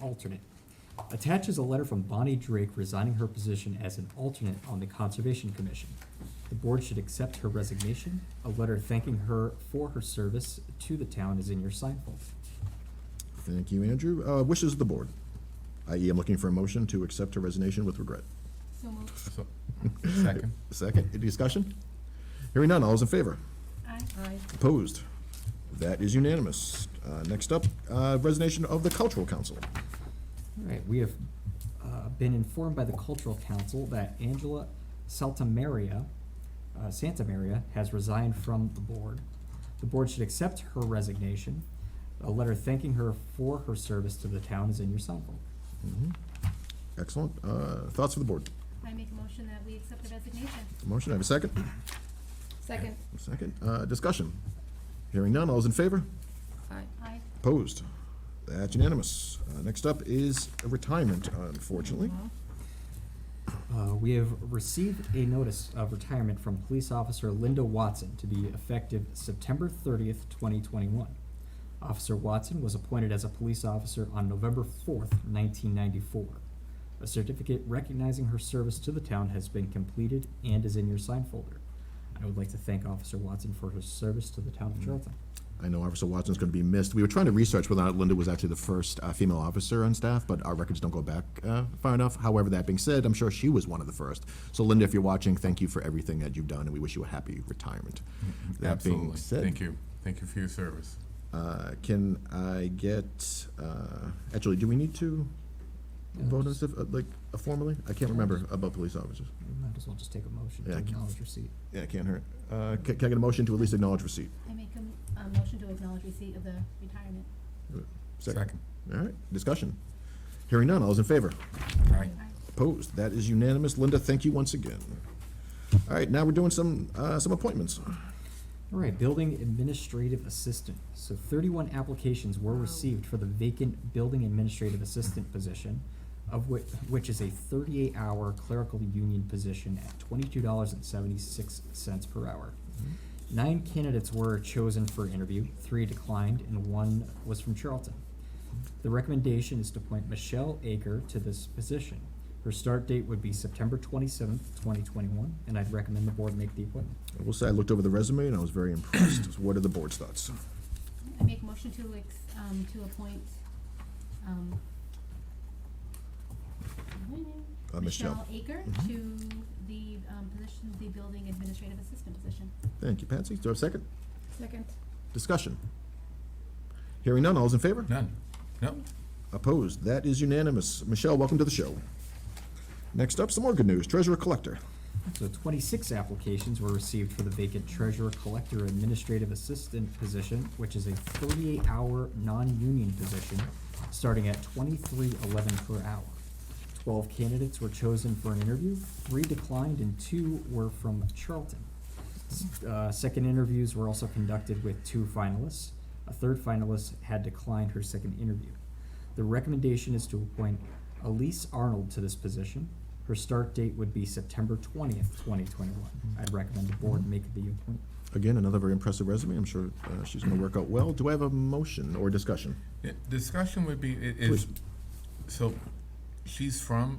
alternate. Attaches a letter from Bonnie Drake resigning her position as an alternate on the Conservation Commission. The board should accept her resignation. A letter thanking her for her service to the town is in your sign folder. Thank you, Andrew. Uh, Wishes of the board. I.e., I'm looking for a motion to accept her resignation with regret. So moved. So- Second. Second, any discussion? Hearing none, all is in favor? Aye. Opposed? That is unanimous. Uh, Next up, uh, resignation of the cultural council. All right, we have uh, been informed by the Cultural Council that Angela Saltamaria, uh, Santa Maria, has resigned from the board. The board should accept her resignation. A letter thanking her for her service to the town is in your sign folder. Excellent. Uh, Thoughts for the board? I make a motion that we accept the resignation. Motion, I have a second? Second. Second, Uh, discussion. Hearing none, all is in favor? Aye. Aye. Opposed? That's unanimous. Uh, Next up is retirement, unfortunately. Uh, We have received a notice of retirement from police officer Linda Watson to be effective September thirtieth, twenty twenty-one. Officer Watson was appointed as a police officer on November fourth, nineteen ninety-four. A certificate recognizing her service to the town has been completed and is in your sign folder. I would like to thank Officer Watson for her service to the town Mm. of Charlton. I know Officer Watson's going to be missed. We were trying to research whether or not Linda was actually the first uh, female officer on staff, but our records don't go back uh, far enough. However, that being said, I'm sure she was one of the first. So Linda, if you're watching, thank you for everything that you've done, and we wish you a happy retirement. That being Mm-hmm. Absolutely. said, Thank you. Thank you for your service. uh, Can I get, uh, actually, do we need to vote on this, uh, like, uh, formally? I can't remember about police officers. You Might as well just take a motion to Yeah, I can- acknowledge receipt. Yeah, it can't hurt. Uh, ca- Can I get a motion to at least acknowledge receipt? I make a, m- a motion to acknowledge receipt of the retirement. All right, discussion. Hearing none, all's in favor? Aye. Aye. Opposed? That is unanimous. Linda, thank you once again. All right, now we're doing some, uh, some appointments. All right, building administrative assistant. So thirty-one applications were Wow. received for the vacant building administrative assistant position, of which, which is a thirty-eight hour clerical union position at twenty-two dollars and seventy-six cents per hour. Nine candidates were chosen for interview, three declined, and one was from Charlton. The recommendation is to appoint Michelle Aker to this position. Her start date would be September twenty-seventh, twenty twenty-one, and I'd recommend the board make the appointment. I will say, I looked over the resume and I was very impressed. What are the board's thoughts? I make a motion to ex, um, to appoint, um, Uh, Michelle. Aker Mhm. to the, um, position, the building administrative assistant position. Thank you, Patsy. Do I have a second? Second. Discussion. Hearing none, all's in favor? None? No? Opposed? That is unanimous. Michelle, welcome to the show. Next up, some more good news. Treasurer Collector. So twenty-six applications were received for the vacant treasurer collector administrative assistant position, which is a thirty-eight hour non-union position, starting at twenty-three eleven per hour. Twelve candidates were chosen for an interview, three declined and two were from Charlton. S- Uh, second interviews were also conducted with two finalists. A third finalist had declined her second interview. The recommendation is to appoint Elise Arnold to this position. Her start date would be September twentieth, twenty twenty-one. I'd recommend the board make the appointment. Again, another very impressive resume. I'm sure uh, she's going to work out well. Do I have a motion or discussion? Yeah, Discussion would be, i- is, Please. so she's from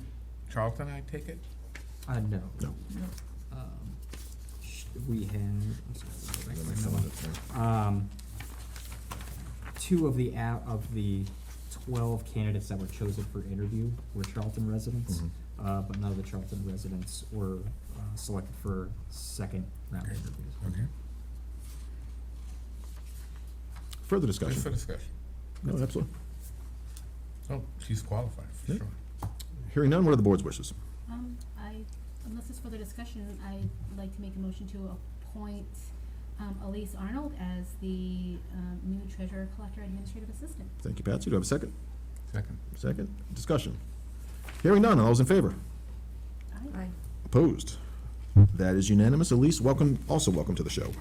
Charlton, I take it? Uh, no. No. Um, sh- We have, I'm sorry, let me Let go me back to fill my in note. the thing. Um, two of the, a- of the twelve candidates that were chosen for interview were Charlton residents, Mhm. uh, but none of the Charlton residents were, uh, selected for second round Okay. interviews. Okay. Further Just for discussion? discussion. No, absolutely. Oh, she's qualified, for Yeah. sure. Hearing none, what are the board's wishes? Um, I, unless there's further discussion, I'd like to make a motion to appoint, um, Elise Arnold as the, um, new treasurer collector administrative assistant. Thank you, Patsy. Do I have a second? Second. Second. Discussion. Hearing none, all those in favor? Aye. Aye. Opposed? That is unanimous. Elise, welcome, also welcome to the show.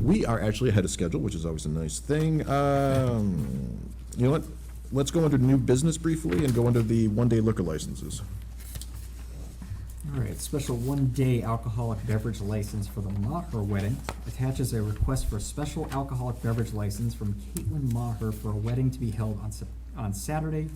We are actually ahead of schedule, which is always a nice thing. Um, You know what? Let's go under new business briefly and go under the one-day liquor licenses. All right, special one-day alcoholic beverage license for the Maher wedding attaches a request for a special alcoholic beverage license from Caitlin Maher for a wedding to be held on, Sep- on Saturday,